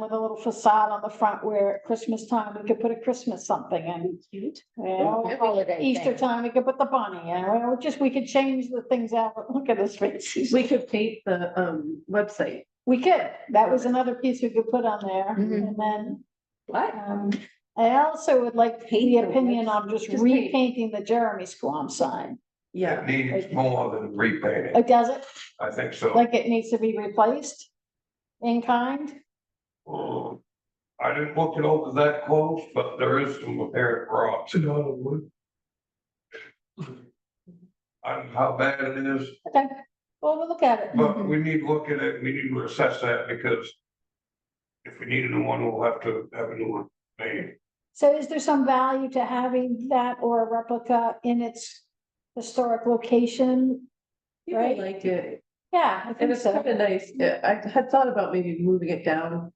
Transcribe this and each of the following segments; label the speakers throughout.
Speaker 1: with a little facade on the front where at Christmas time, we could put a Christmas something and. Cute.
Speaker 2: Every
Speaker 1: Yeah,
Speaker 2: holiday thing.
Speaker 1: Easter time, we could put the bunny, and well, just, we could change the things out, but look at his face.
Speaker 3: We could paint the um website.
Speaker 1: We could, that was another piece we could put on there,
Speaker 2: Mhm.
Speaker 1: and then,
Speaker 3: What?
Speaker 1: um, I also would like the
Speaker 2: Paint the
Speaker 1: opinion on just
Speaker 3: Just paint.
Speaker 1: repainting the Jeremy Squam sign.
Speaker 3: Yeah,
Speaker 4: It needs more than repainting,
Speaker 1: Like, does it,
Speaker 4: I think so.
Speaker 1: like it needs to be replaced in kind?
Speaker 4: Mm. I didn't look it over that close, but there is some apparent rocks. I don't know how bad it is,
Speaker 1: Okay, well, we'll look at it.
Speaker 4: but we need to look at it, we need to assess that because if we need a new one, we'll have to have a new one made.
Speaker 1: So is there some value to having that or a replica in its historic location?
Speaker 3: people
Speaker 1: Right.
Speaker 3: like it.
Speaker 1: Yeah, I
Speaker 3: And
Speaker 1: think
Speaker 3: it's kind
Speaker 1: so.
Speaker 3: of nice. Yeah, I had thought about maybe moving it down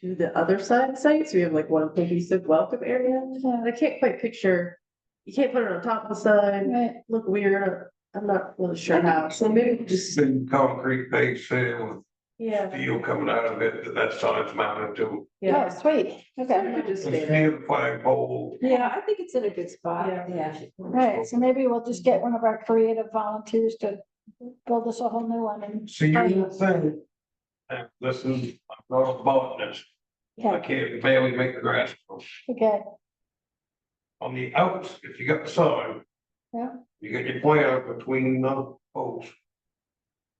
Speaker 3: to the other side of the site. So we have like one cohesive welcome area.
Speaker 1: Yeah,
Speaker 3: But I can't quite picture, you can't put it on top of the sign,
Speaker 1: Right,
Speaker 3: look weird. I'm not really sure how. So maybe we just,
Speaker 4: Big concrete base there with
Speaker 3: yeah,
Speaker 4: steel coming out of it, that that sign's mounted to.
Speaker 1: oh,
Speaker 3: yeah.
Speaker 1: sweet, okay.
Speaker 3: We could just
Speaker 4: It's
Speaker 3: stay there.
Speaker 4: near the flagpole.
Speaker 2: Yeah, I think it's in a good spot,
Speaker 3: Yeah.
Speaker 2: yeah.
Speaker 1: Right, so maybe we'll just get one of our creative volunteers to build us a whole new one and,
Speaker 4: See, you thing. And this is, I'm not a botanist, I
Speaker 1: yeah,
Speaker 4: can't barely make the grass grow.
Speaker 1: okay,
Speaker 4: on the outs, if you got the sign.
Speaker 1: Yeah.
Speaker 4: You got your plant between the posts.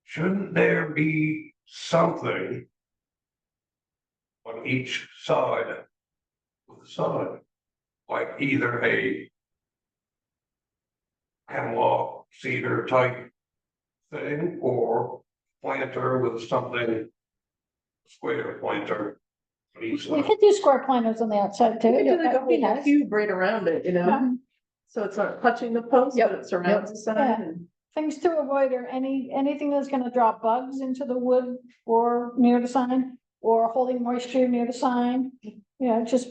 Speaker 4: Shouldn't there be something? On each side. With the sign, like either a. Hemlock cedar type. Thing or planter with something. Square planter. on each
Speaker 1: we
Speaker 4: side.
Speaker 1: could do square planters on the outside too.
Speaker 3: We could do like a
Speaker 1: That'd be
Speaker 3: whole
Speaker 1: nice.
Speaker 3: cube right around it, you know?
Speaker 1: Um,
Speaker 3: So it's not touching the post, but it surrounds the
Speaker 1: Yeah.
Speaker 3: sign and.
Speaker 1: Things to avoid are any, anything that's gonna draw bugs into the wood or near the sign, or holding moisture near the sign. You know, just,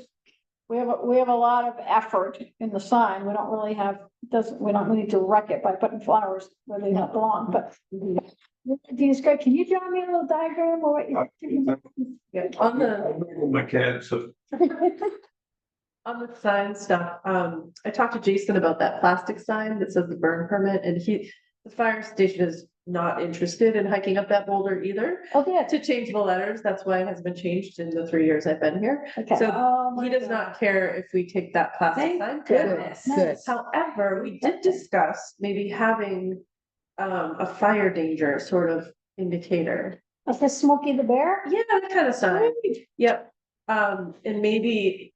Speaker 1: we have, a- we have a lot of effort in the sign, we don't really have, doesn't, we don't need to wreck it by putting flowers where they don't belong, but.
Speaker 3: mm-hmm.
Speaker 1: Dean Scott, can you draw me a little diagram or what? you-
Speaker 3: Yeah, on the,
Speaker 4: My kids, so
Speaker 3: on the sign stuff, um, I talked to Jason about that plastic sign that says the burn permit and he, the fire station is not interested in hiking up that boulder either.
Speaker 1: Oh, yeah,
Speaker 3: To change the letters, that's why it has been changed in the three years I've been here.
Speaker 1: okay.
Speaker 3: So
Speaker 1: Oh, my
Speaker 3: He does
Speaker 1: God.
Speaker 3: not care if we take that plastic
Speaker 2: Thank
Speaker 3: sign. down.
Speaker 2: Goodness.
Speaker 1: Good.
Speaker 3: However, we did discuss maybe having, um, a fire danger sort of indicator.
Speaker 1: Is this Smokey the Bear?
Speaker 3: Yeah, that kind of sign. Yep, um, and maybe.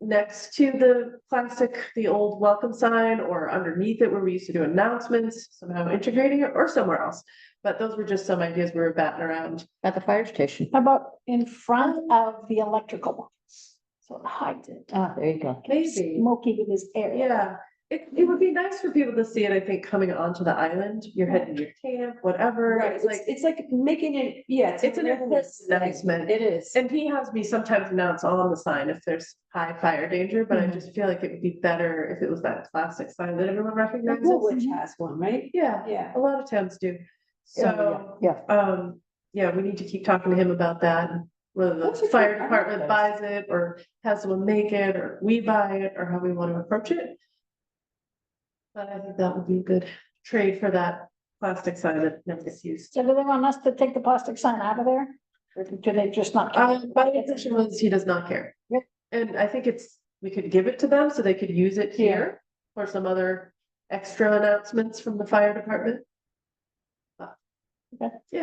Speaker 3: Next to the plastic, the old welcome sign or underneath it where we used to do announcements, somehow integrating it or somewhere else. But those were just some ideas we were batting around.
Speaker 2: At the fire station.
Speaker 1: How about in front of the electrical? box? So it hides it.
Speaker 2: Ah, there you go.
Speaker 3: Maybe,
Speaker 1: Smokey with his air.
Speaker 3: yeah, it, it would be nice for people to see it, I think, coming onto the island, you're heading to camp, whatever.
Speaker 2: Right,
Speaker 3: It's like,
Speaker 2: it's, it's like making it, yeah.
Speaker 3: It's an advertisement.
Speaker 2: It is.
Speaker 3: and he has me sometimes announce on the sign if there's high fire danger, but I
Speaker 2: Mhm.
Speaker 3: just feel like it would be better if it was that plastic sign that everyone recognizes.
Speaker 2: Woolwich has one, right?
Speaker 3: Yeah.
Speaker 2: Yeah.
Speaker 3: A lot of towns do.
Speaker 2: Yeah,
Speaker 3: So,
Speaker 2: yeah,
Speaker 3: um, yeah, we need to keep talking to him about that. and Whether
Speaker 2: That's
Speaker 3: the
Speaker 2: a
Speaker 3: fire
Speaker 2: good- I like
Speaker 3: department
Speaker 2: this.
Speaker 3: buys it or has someone make it or we buy it or how we want to approach it. But I think that would be a good trade for that plastic sign that never gets used.
Speaker 1: So do they want us to take the plastic sign out of there? Or do they just not? care?
Speaker 3: Um, my impression was he does not care.
Speaker 1: Yep.
Speaker 3: And I think it's, we could give it to them so they could use it
Speaker 1: Yeah.
Speaker 3: here for some other extra announcements from the fire department. But,
Speaker 1: Okay.
Speaker 3: Yeah.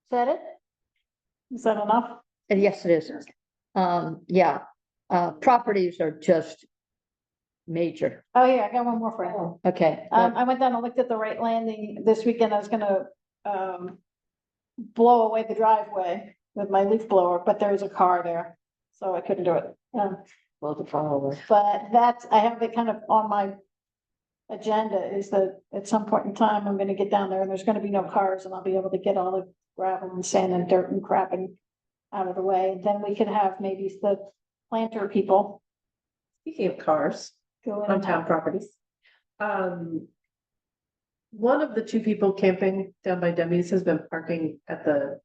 Speaker 1: Is that it? Is that enough?
Speaker 5: Uh, Yes, it is. Um, yeah, uh, properties are just major.
Speaker 1: Oh, yeah, I got one more for you.
Speaker 5: Okay,
Speaker 1: Um,
Speaker 5: that-
Speaker 1: I went down and looked at the right landing this weekend. I was gonna, um, blow away the driveway with my leaf blower, but there was a car there, so I couldn't do it. Um,
Speaker 5: well, the follower.
Speaker 1: But that's, I have it kind of on my agenda is that at some point in time, I'm gonna get down there and there's gonna be no cars and I'll be able to get all the gravel and sand and dirt and crap and out of the way. Then we could have maybe the planter people
Speaker 3: Speaking of cars.
Speaker 1: go in.
Speaker 3: on
Speaker 1: and
Speaker 3: town
Speaker 1: out.
Speaker 3: properties. Uh-huh. Um. One of the two people camping down by Demi's has been parking at the